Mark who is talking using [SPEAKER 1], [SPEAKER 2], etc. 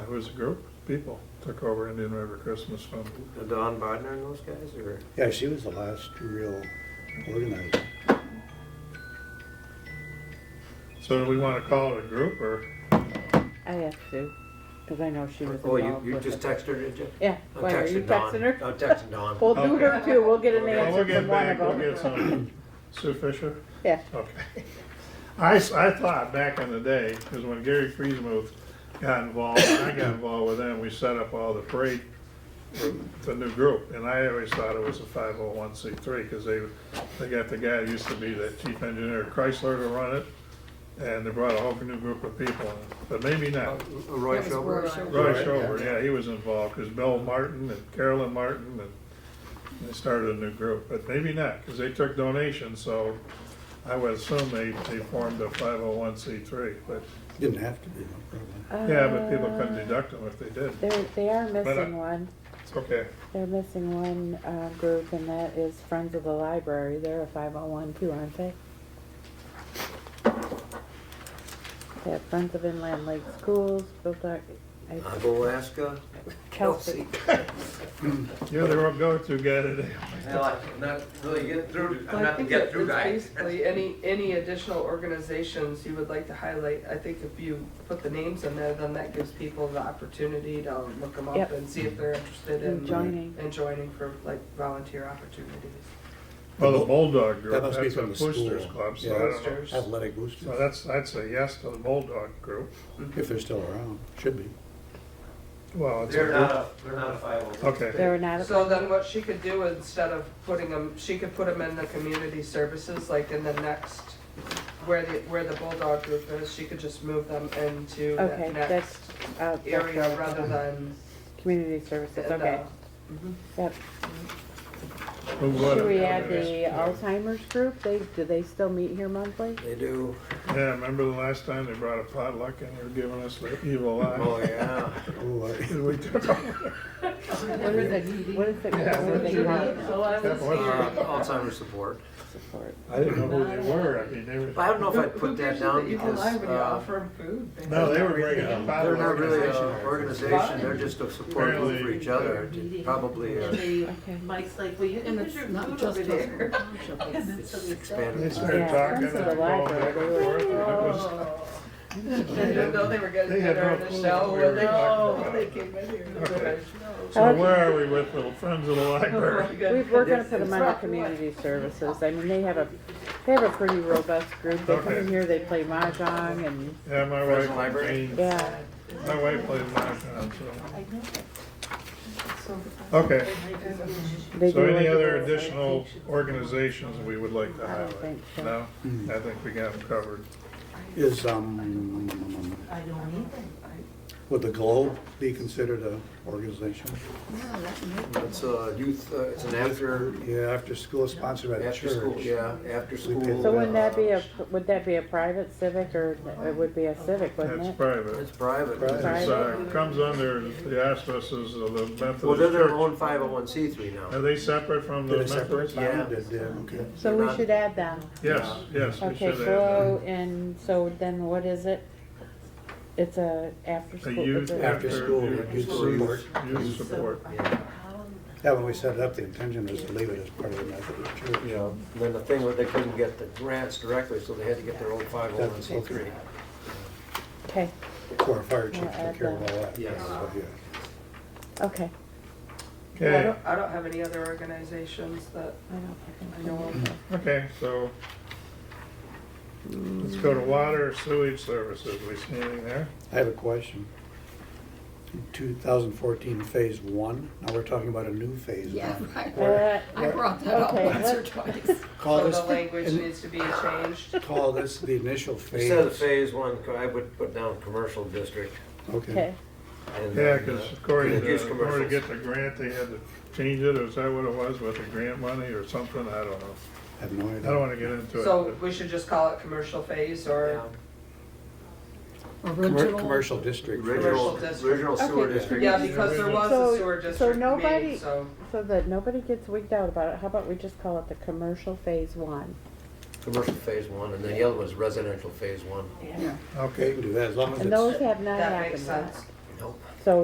[SPEAKER 1] it was a group of people took over Indian River Christmas from,
[SPEAKER 2] The Don Bodnar and those guys, or?
[SPEAKER 3] Yeah, she was the last real organizer.
[SPEAKER 1] so do we want to call it a group or?
[SPEAKER 4] I have to, because I know she was
[SPEAKER 2] Oh, you,
[SPEAKER 4] involved
[SPEAKER 2] you
[SPEAKER 4] with
[SPEAKER 2] just
[SPEAKER 4] it.
[SPEAKER 2] texted her, did you?
[SPEAKER 4] Yeah,
[SPEAKER 2] I'm
[SPEAKER 4] why, are you
[SPEAKER 2] Don.
[SPEAKER 4] texting her?
[SPEAKER 2] I'm texting Don.
[SPEAKER 4] We'll do her too, we'll get an
[SPEAKER 2] Okay.
[SPEAKER 1] Well,
[SPEAKER 4] answer
[SPEAKER 1] we'll
[SPEAKER 4] from
[SPEAKER 1] get
[SPEAKER 4] one
[SPEAKER 1] back,
[SPEAKER 4] of
[SPEAKER 1] we'll get some.
[SPEAKER 4] them.
[SPEAKER 1] Sue Fisher?
[SPEAKER 4] Yeah,
[SPEAKER 1] Okay. I, s- I thought back in the day, because when Gary Friesmuth got involved, and I got involved with them, we set up all the parade, for the new group, and I always thought it was a five oh one C three, because they, they got the guy who used to be the chief engineer at Chrysler to run it, and they brought a whole new group of people, in. but maybe
[SPEAKER 2] Uh,
[SPEAKER 1] not.
[SPEAKER 2] Roy
[SPEAKER 5] That was Roy
[SPEAKER 2] Philbrook?
[SPEAKER 5] Philbrook.
[SPEAKER 1] Roy
[SPEAKER 3] Right,
[SPEAKER 1] Schober,
[SPEAKER 3] yeah.
[SPEAKER 1] yeah, he was involved, because Bill Martin and Carolyn Martin, and they started a new group, but maybe not, because they took donations, so I would assume they, they formed a five oh one C three, but,
[SPEAKER 3] Didn't have to be, no problem.
[SPEAKER 1] yeah, but people couldn't
[SPEAKER 4] Uh,
[SPEAKER 1] deduct them if they did.
[SPEAKER 4] They're, they are
[SPEAKER 1] uh,
[SPEAKER 4] missing one,
[SPEAKER 1] It's okay.
[SPEAKER 4] they're missing one, uh, group, and that is Friends of the Library, they're a five oh one too, aren't they? They have Friends of Inland Lake Schools, built up,
[SPEAKER 6] Uh,
[SPEAKER 4] I-
[SPEAKER 2] I'll go Alaska.
[SPEAKER 4] Kelsey.
[SPEAKER 1] You're the go-to guy today.
[SPEAKER 6] Well, I'm not really getting through, I'm
[SPEAKER 5] Well, I
[SPEAKER 6] not the
[SPEAKER 5] think it-
[SPEAKER 6] get-through
[SPEAKER 5] it's
[SPEAKER 6] guy.
[SPEAKER 5] Basically, any, any additional organizations you would like to highlight, I think if you put the names in there, then that gives people the opportunity to look them
[SPEAKER 4] Yep.
[SPEAKER 5] up and see if they're interested
[SPEAKER 4] And
[SPEAKER 5] in.
[SPEAKER 4] joining.
[SPEAKER 5] And joining for like volunteer opportunities.
[SPEAKER 1] Well, the Bulldog Group,
[SPEAKER 3] That must be
[SPEAKER 1] that's a
[SPEAKER 3] from the school.
[SPEAKER 1] boosters club, so I
[SPEAKER 3] Yeah.
[SPEAKER 1] don't know.
[SPEAKER 5] Boosters.
[SPEAKER 3] Athletic
[SPEAKER 1] So
[SPEAKER 3] boosters,
[SPEAKER 1] that's, I'd say yes to the Bulldog Group.
[SPEAKER 3] if they're still around, should be.
[SPEAKER 1] Well, it's a
[SPEAKER 6] They're not
[SPEAKER 2] uh,
[SPEAKER 1] group.
[SPEAKER 6] a, they're not a five oh.
[SPEAKER 1] Okay,
[SPEAKER 4] They're not,
[SPEAKER 5] So then what she could do instead of putting them, she could put them in the community services, like in the next, where the, where the Bulldog group is, she could just move them into
[SPEAKER 4] Okay,
[SPEAKER 5] that
[SPEAKER 4] that's-
[SPEAKER 5] next
[SPEAKER 4] uh,
[SPEAKER 5] area rather than.
[SPEAKER 4] community services,
[SPEAKER 5] in the-
[SPEAKER 4] okay,
[SPEAKER 2] uh,
[SPEAKER 5] Mhm.
[SPEAKER 4] yep.
[SPEAKER 1] move on.
[SPEAKER 4] Should we add the Alzheimer's group? They, do they still meet here monthly?
[SPEAKER 2] They do.
[SPEAKER 1] Yeah, remember the last time they brought a potluck and they were giving us the evil
[SPEAKER 2] Oh,
[SPEAKER 1] eye?
[SPEAKER 2] yeah.
[SPEAKER 3] Oh, I-
[SPEAKER 1] And we took over.
[SPEAKER 4] What are they, what is E it, what are they called?
[SPEAKER 2] Uh,
[SPEAKER 1] Yeah,
[SPEAKER 2] Alzheimer's support.
[SPEAKER 4] Support.
[SPEAKER 1] I didn't know who they were, I mean, they
[SPEAKER 2] I
[SPEAKER 1] were,
[SPEAKER 2] don't know if I'd put that down
[SPEAKER 5] Who gives you the evil
[SPEAKER 2] because,
[SPEAKER 5] eye when you
[SPEAKER 2] uh,
[SPEAKER 5] offer 'em food?
[SPEAKER 1] no, they were bringing a
[SPEAKER 2] they're
[SPEAKER 1] potluck.
[SPEAKER 2] not really an organization, they're just a support group for each other.
[SPEAKER 7] Apparently-
[SPEAKER 2] Probably, uh,
[SPEAKER 7] They-
[SPEAKER 4] Okay.
[SPEAKER 7] Mike's like, well, you
[SPEAKER 5] And
[SPEAKER 7] can put
[SPEAKER 5] it's
[SPEAKER 7] your
[SPEAKER 5] not
[SPEAKER 7] food
[SPEAKER 5] just
[SPEAKER 7] over
[SPEAKER 5] us.
[SPEAKER 7] there.
[SPEAKER 2] it's expanded.
[SPEAKER 1] They started
[SPEAKER 4] Yeah,
[SPEAKER 1] talking and
[SPEAKER 4] friends of the
[SPEAKER 1] going back and
[SPEAKER 4] library. Oh.
[SPEAKER 1] forth, and it was,
[SPEAKER 5] They didn't know they were getting
[SPEAKER 1] They had
[SPEAKER 5] dinner
[SPEAKER 1] no
[SPEAKER 5] in
[SPEAKER 1] clue
[SPEAKER 5] the show
[SPEAKER 1] what we
[SPEAKER 5] when
[SPEAKER 1] were
[SPEAKER 5] they,
[SPEAKER 1] talking
[SPEAKER 5] when they
[SPEAKER 1] about.
[SPEAKER 5] came in here.
[SPEAKER 1] Okay. so
[SPEAKER 4] Okay.
[SPEAKER 1] where are we with the Friends of the Library?
[SPEAKER 4] We, we're gonna put them
[SPEAKER 5] It's
[SPEAKER 4] on the
[SPEAKER 5] rough.
[SPEAKER 4] community services. I mean, they have a, they have a pretty robust group. They come in
[SPEAKER 1] Okay.
[SPEAKER 4] here, they play mahjong and,
[SPEAKER 1] Yeah, my
[SPEAKER 2] Friends of
[SPEAKER 1] wife,
[SPEAKER 2] the Library?
[SPEAKER 1] Jane,
[SPEAKER 4] yeah.
[SPEAKER 1] my wife plays mahjong, so. Okay,
[SPEAKER 4] they
[SPEAKER 1] so
[SPEAKER 4] do
[SPEAKER 1] any
[SPEAKER 4] like-
[SPEAKER 1] other additional organizations we would like to
[SPEAKER 4] I don't
[SPEAKER 1] highlight?
[SPEAKER 4] think so.
[SPEAKER 1] No, I think we got them covered.
[SPEAKER 3] Is, um,
[SPEAKER 7] I don't either.
[SPEAKER 3] would the Globe be considered a organization?
[SPEAKER 2] It's a youth, uh, it's an after,
[SPEAKER 3] Yeah, after school sponsored by the
[SPEAKER 2] after school,
[SPEAKER 3] church.
[SPEAKER 2] yeah, after school.
[SPEAKER 4] So wouldn't that be a,
[SPEAKER 2] uh,
[SPEAKER 4] would that be a private civic or it would be a civic, wouldn't
[SPEAKER 1] That's
[SPEAKER 4] it?
[SPEAKER 1] private.
[SPEAKER 2] It's private.
[SPEAKER 3] Private.
[SPEAKER 1] It's, uh, comes under the auspices of the
[SPEAKER 2] Well, they're
[SPEAKER 1] Methodist
[SPEAKER 2] their
[SPEAKER 1] Church.
[SPEAKER 2] own five oh one C three now.
[SPEAKER 1] Are they separate from the
[SPEAKER 3] Did they separate?
[SPEAKER 1] Methodist?
[SPEAKER 2] Yeah.
[SPEAKER 3] Did, yeah, okay.
[SPEAKER 4] So we should add them.
[SPEAKER 1] Yes, yes, we
[SPEAKER 4] Okay,
[SPEAKER 1] should add
[SPEAKER 4] flow and so then what is it? It's a after
[SPEAKER 1] a
[SPEAKER 4] school.
[SPEAKER 1] youth
[SPEAKER 4] it's a-
[SPEAKER 3] after school, youth support.
[SPEAKER 1] Youth support.
[SPEAKER 3] Yeah, when we set it up, the intention was to leave it as part of the Methodist church.
[SPEAKER 2] You know, and then the thing was they couldn't get the grants directly, so they had to get their own five oh one C three.
[SPEAKER 4] Okay,
[SPEAKER 3] Or fire chief
[SPEAKER 4] Wanna
[SPEAKER 3] took
[SPEAKER 4] add
[SPEAKER 3] care of all that.
[SPEAKER 2] Yes.
[SPEAKER 3] So, yeah.
[SPEAKER 4] okay.
[SPEAKER 5] Yeah, I
[SPEAKER 1] Okay,
[SPEAKER 5] don't, I don't have any other organizations that
[SPEAKER 4] I don't fucking
[SPEAKER 5] I know of.
[SPEAKER 1] okay, so let's go to water sewage services. We see anything there?
[SPEAKER 3] I have a question. In 2014, phase one, now we're talking about a new phase
[SPEAKER 8] Yeah,
[SPEAKER 3] one.
[SPEAKER 8] I
[SPEAKER 4] Uh,
[SPEAKER 8] I brought that up
[SPEAKER 4] Okay,
[SPEAKER 8] once or
[SPEAKER 4] let's-
[SPEAKER 8] twice.
[SPEAKER 3] Call
[SPEAKER 5] So
[SPEAKER 3] this,
[SPEAKER 5] the language
[SPEAKER 3] and
[SPEAKER 5] needs to be changed.
[SPEAKER 3] call this the initial phase.
[SPEAKER 2] Instead of phase one, I would put down commercial district.
[SPEAKER 3] Okay.
[SPEAKER 4] Okay,
[SPEAKER 2] and,
[SPEAKER 1] Yeah,
[SPEAKER 2] uh,
[SPEAKER 1] because according to,
[SPEAKER 2] Use
[SPEAKER 1] in order to
[SPEAKER 2] commercials.
[SPEAKER 1] get the grant, they had to change it. Is that what it was with the grant money or something? I don't know.
[SPEAKER 3] I have no
[SPEAKER 1] I don't
[SPEAKER 3] idea.
[SPEAKER 1] want to get into it.
[SPEAKER 5] So
[SPEAKER 1] but-
[SPEAKER 5] we should just call it commercial phase or,
[SPEAKER 3] Commer-
[SPEAKER 8] Original.
[SPEAKER 3] Commercial district. phase.
[SPEAKER 2] Original,
[SPEAKER 5] district.
[SPEAKER 2] original sewer
[SPEAKER 4] Okay.
[SPEAKER 2] district.
[SPEAKER 5] yeah, because there was
[SPEAKER 4] So-
[SPEAKER 5] a sewer
[SPEAKER 4] so
[SPEAKER 5] district
[SPEAKER 4] nobody-
[SPEAKER 5] made, so.
[SPEAKER 4] so that nobody gets wigged out about it, how about we just call it the commercial phase one?
[SPEAKER 2] Commercial phase one, and then the other one's residential phase one.
[SPEAKER 3] Okay, you can do that as long as
[SPEAKER 4] And those
[SPEAKER 3] it's,
[SPEAKER 4] have not
[SPEAKER 5] That makes
[SPEAKER 4] happened yet.
[SPEAKER 5] sense.
[SPEAKER 2] Nope.